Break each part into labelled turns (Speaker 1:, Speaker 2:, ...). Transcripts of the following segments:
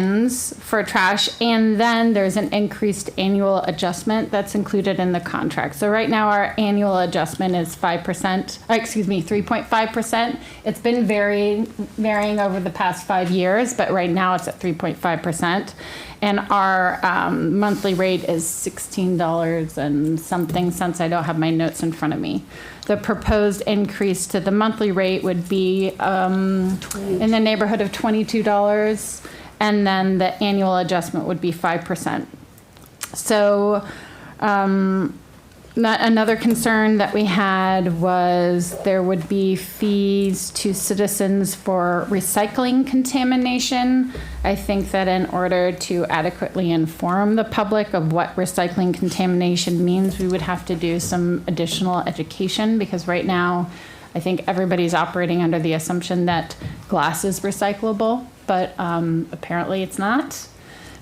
Speaker 1: bins for trash, and then there's an increased annual adjustment that's included in the contract. So right now, our annual adjustment is five percent, uh, excuse me, three point five percent. It's been varying, varying over the past five years, but right now it's at three point five percent. And our um, monthly rate is sixteen dollars and something cents. I don't have my notes in front of me. The proposed increase to the monthly rate would be um, in the neighborhood of twenty-two dollars and then the annual adjustment would be five percent. So, um, not, another concern that we had was there would be fees to citizens for recycling contamination. I think that in order to adequately inform the public of what recycling contamination means, we would have to do some additional education because right now, I think everybody's operating under the assumption that glass is recyclable, but um, apparently it's not.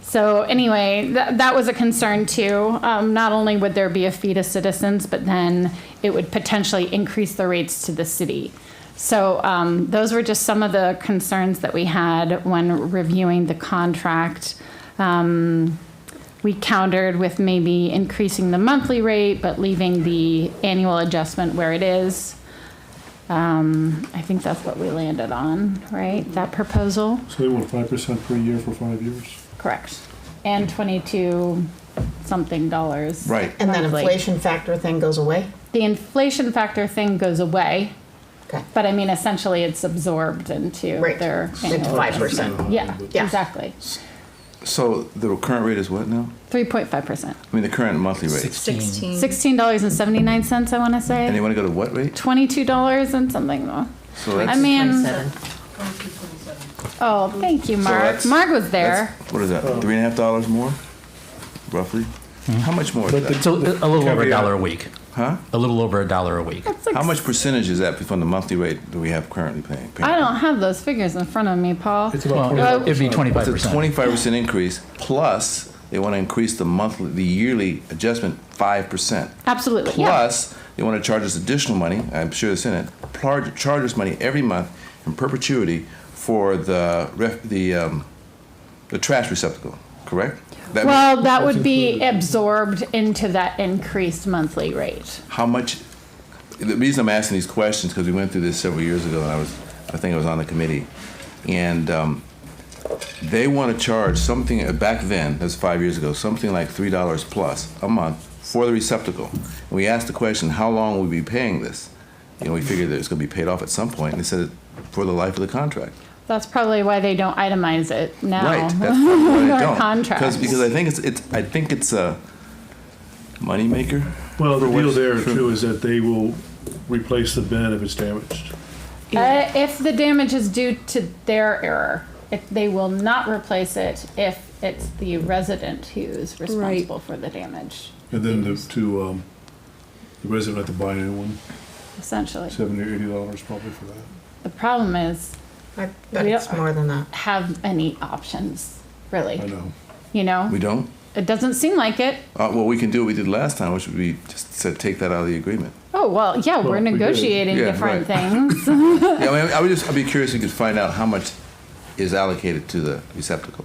Speaker 1: So anyway, that, that was a concern too. Um, not only would there be a fee to citizens, but then it would potentially increase the rates to the city. So um, those were just some of the concerns that we had when reviewing the contract. Um, we countered with maybe increasing the monthly rate, but leaving the annual adjustment where it is. Um, I think that's what we landed on, right? That proposal?
Speaker 2: So they want five percent per year for five years.
Speaker 1: Correct. And 22 something dollars.
Speaker 3: Right.
Speaker 4: And that
Speaker 1: monthly.
Speaker 4: inflation factor thing goes away?
Speaker 1: The inflation factor thing goes away,
Speaker 4: Okay,
Speaker 1: but I mean, essentially it's absorbed into
Speaker 4: Right.
Speaker 1: their
Speaker 4: It's
Speaker 1: annual.
Speaker 4: five percent.
Speaker 1: Yeah,
Speaker 4: Yeah.
Speaker 1: exactly.
Speaker 3: So the current rate is what now?
Speaker 1: 3.5%.
Speaker 3: I mean, the current monthly rate.
Speaker 5: Sixteen.
Speaker 1: $16.79, I want to
Speaker 3: And
Speaker 1: say.
Speaker 3: they want to go to what rate?
Speaker 1: $22 and something though.
Speaker 3: So
Speaker 1: I
Speaker 3: that's-
Speaker 1: mean,
Speaker 4: seven.
Speaker 1: oh, thank you, Mark.
Speaker 3: that's-
Speaker 1: Mark was there.
Speaker 3: that's- What is that, three and a half dollars more, roughly?
Speaker 1: Hmm.
Speaker 3: How much more
Speaker 2: But
Speaker 3: is that?
Speaker 2: the-
Speaker 5: So a a little over a
Speaker 2: Caveat.
Speaker 5: dollar a week.
Speaker 3: Huh?
Speaker 5: A little over a dollar a week.
Speaker 1: That's like-
Speaker 3: How much percentage is that from the monthly rate that we have currently paying?
Speaker 1: I don't have those figures in front of me, Paul. Oh,
Speaker 2: It's about twenty.
Speaker 5: Well, it'd be twenty-five
Speaker 3: It's a
Speaker 5: percent.
Speaker 3: twenty-five percent increase, plus they want to increase the monthly, the yearly adjustment five percent.
Speaker 1: Absolutely, yeah.
Speaker 3: Plus, they want to charge us additional money, I'm sure it's in it, charge, charge us money every month in perpetuity for the ref, the, um, the trash receptacle, correct? That means-
Speaker 1: Well, that would be absorbed into that increased monthly rate.
Speaker 3: how much, the reason I'm asking these questions, because we went through this several years ago, and I was, I think I was on the committee, and um, they want to charge something, uh, back then, that's five years ago, something like three dollars plus a month for the receptacle. And we asked the question, how long would we be paying this? You know, we figured that it's going to be paid off at some point, and they said, for the life of the contract.
Speaker 1: That's probably why they don't itemize it now. Uh,
Speaker 3: Right, that's probably why they
Speaker 1: Our
Speaker 3: don't.
Speaker 1: contracts.
Speaker 3: Because, because I think it's, it's, I think it's a moneymaker.
Speaker 2: Well, the
Speaker 3: for
Speaker 2: deal
Speaker 3: what's-
Speaker 2: there
Speaker 3: for-
Speaker 2: too is that they will replace the bin if it's damaged.
Speaker 1: Uh, if the damage is due to their error, if they will not replace it if it's the resident who is responsible for the damage,
Speaker 2: And then the, to, um, the resident had to buy a new one,
Speaker 1: essentially.
Speaker 2: seventy or eighty dollars probably for that.
Speaker 1: The problem is
Speaker 4: I bet
Speaker 1: We
Speaker 4: it's
Speaker 1: don't-
Speaker 4: more than that.
Speaker 1: have any options,
Speaker 2: I
Speaker 1: really.
Speaker 2: know.
Speaker 1: You
Speaker 3: We
Speaker 1: know,
Speaker 3: don't?
Speaker 1: it doesn't seem like it.
Speaker 3: Uh, well, we can do what we did last time, which would be just said take that out of the agreement.
Speaker 1: Oh well, yeah,
Speaker 2: Well,
Speaker 1: we're
Speaker 2: we did.
Speaker 1: negotiating
Speaker 3: Yeah,
Speaker 1: different
Speaker 3: right.
Speaker 1: things.
Speaker 3: yeah, I, mean, I would just I'd be curious if you could find out how much is allocated to the receptacle.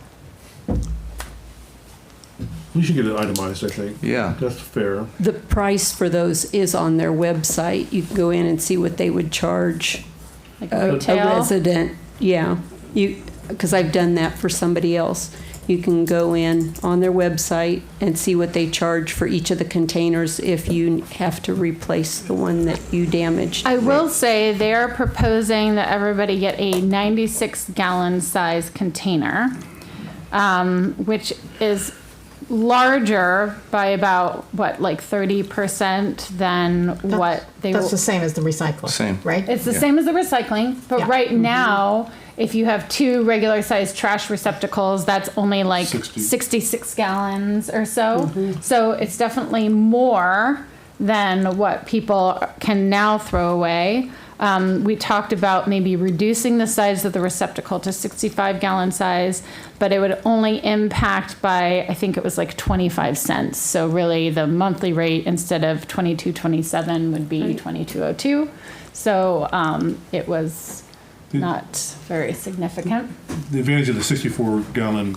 Speaker 2: We should get it itemized, I think.
Speaker 3: Yeah.
Speaker 2: That's fair.
Speaker 6: The price for those is on their website. You can go in and see what they would charge
Speaker 1: Like
Speaker 6: a- a
Speaker 1: retail.
Speaker 6: resident. Yeah, you, because I've done that for somebody else. You can go in on their website and see what they charge for each of the containers if you have to replace the one that you damaged.
Speaker 1: I will say they are proposing that everybody get a 96 gallon size container, um, which is larger by about what, like 30% than what they
Speaker 4: That's
Speaker 1: will.
Speaker 4: the same as the recycling.
Speaker 3: Same.
Speaker 4: Right?
Speaker 1: It's the
Speaker 3: yeah.
Speaker 1: same as the recycling, but
Speaker 4: Yeah.
Speaker 1: right now, if you have two regular sized trash receptacles, that's only like
Speaker 2: 60.
Speaker 1: 66 gallons or so. So it's definitely more than what people can now throw away. Um, we talked about maybe reducing the size of the receptacle to 65 gallon size, but it would only impact by, I think it was like 25 cents. So really the monthly rate instead of oh 2227 would be 2202. So um, it was not very significant.
Speaker 2: The advantage of the 64 gallon